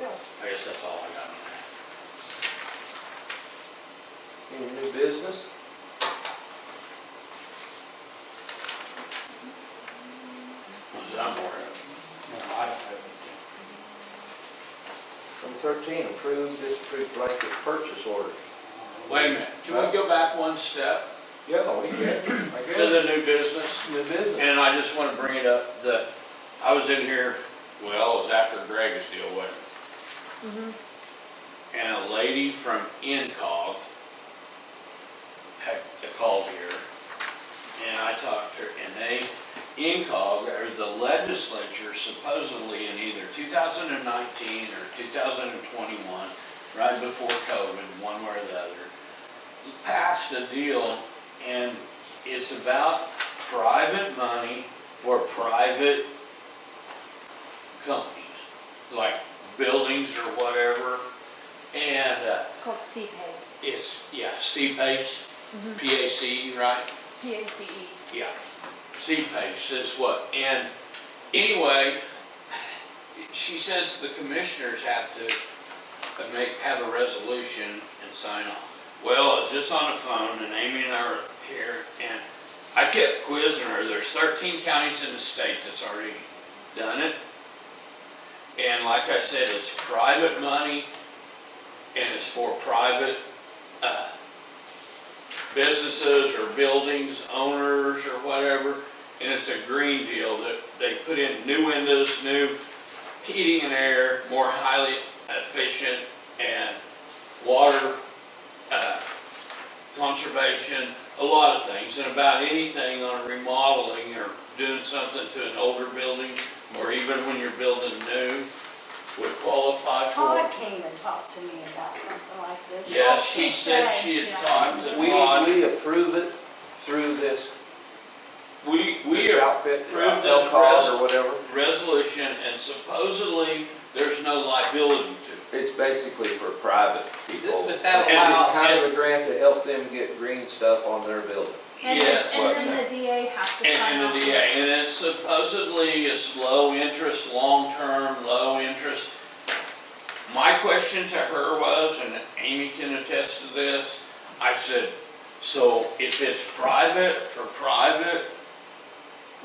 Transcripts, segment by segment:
guess that's all I got on that. Any new business? Was it on board? No, I don't have anything. Number thirteen, approve, disapprove blanket purchase order. Wait a minute, can we go back one step Yeah, oh, we get, I to guess, the new business? new business. And I just want to bring it up that I was in here, well, it was after Greg's deal, wasn't it? And a lady from Incog had called here and I talked to her and they, Incog or the legislature supposedly in either 2019 or 2021, right before COVID, one way or the other, passed a deal and it's about private money for private companies, like buildings or whatever. And uh, It's called CPACE, it's, yeah, C-PACE, P-A-C, right? E. P-A-C-E. Yeah, C-PACE is what, and anyway, she says the commissioners have to uh, make, have a resolution and sign off. Well, I was just on the phone and Amy and I were here and I kept quizzing her, there's thirteen counties in the state that's already done it. And like I said, it's private money and it's for private, uh, businesses or buildings, owners or whatever, and it's a green deal that they put in new windows, new heating and air, more highly efficient and water, uh, conservation, a lot of things, and about anything on remodeling or doing something to an older building, or even when you're building new, would qualify for. Todd it. came and talked to me about something like this. Yeah, she said she had Yeah. talked to We, Todd. we approve it through this We, we are outfit, approve this Elkhart res- or whatever. resolution, and supposedly, there's no liability to It's basically for private people. But that And allows- it's kind of a grant to help them get green stuff on their building. And it. then, Yes, and then the DA has to and, sign off. and the DA, and it's supposedly it's low interest, long-term, low interest. My question to her was, and Amy can attest to this, I said, so if it's private for private,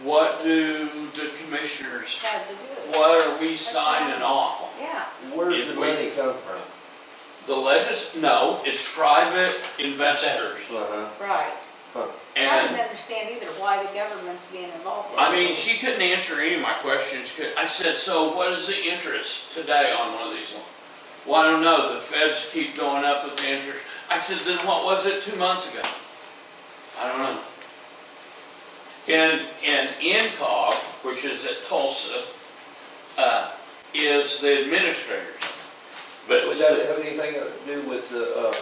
what do the commissioners, Had to do it. what are we signing off on? Yeah, Where's If the we- money come from? The legis, no, it's private investors. Uh-huh. right. I And, didn't understand either why the government's being involved. in I it. mean, she couldn't answer any of my questions. 'cause I said, so what is the interest today on one of these loans? Well, I don't know, the feds keep going up with the interest. I said, then what was it two months ago? I don't know. And, and INCOG, which is at Tulsa, uh, is the administrators. But Would that have anything to do with the, uh,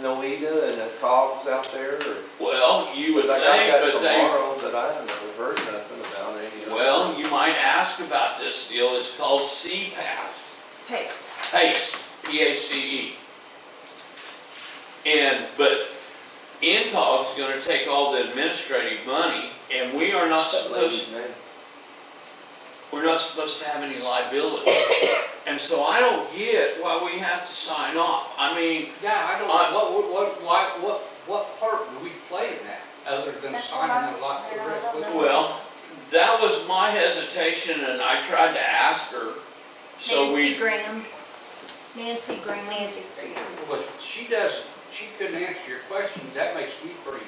Noeda and the cogs out there or? Well, you would Because I think, got but that they tomorrow that I haven't heard nothing about any of it. Well, you might ask about this deal, it's called CPAS, PACE. PACE, P-A-C-E. E. And, but INCOG's gonna take all the administrative money, and we are not That supposed, lady's name. we're not supposed to have any liability. And so I don't get why we have to sign off, I mean, Yeah, I don't, I- what, what, what, why, what, what part do we play in that, other than That's what signing I- a lot I of don't risk? know. well, that was my hesitation, and I tried to ask her, so Nancy we, Graham. Nancy Graham. Nancy Graham. Well, if she doesn't, she couldn't answer your question, that makes me pretty,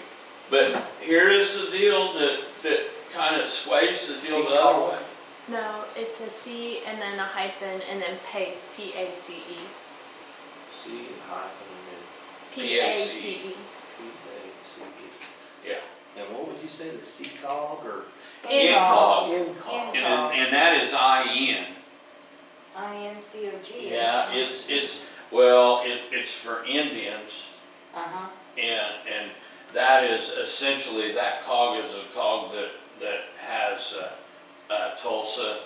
but here is the deal that, that kind of sways the deal the other way. No, it's a C and then a hyphen and then PACE, P-A-C-E. C and hyphen E. P-A-C-E. and then P A C E. Yeah. And what would you say, the C cog or? Incog. Incog. And, and that is IN. I N C O G. Yeah, it's, it's, well, it, it's for Indians Uh-huh. and, and that is essentially, that cog is a cog that, that has, uh, uh, Tulsa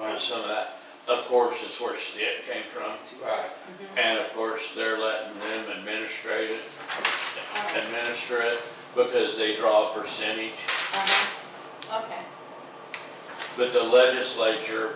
and some of that. Of course, it's where Stitt came from. right. And of course, they're letting them administrate it, administer it because they draw a percentage. Uh-huh. Okay. But the legislature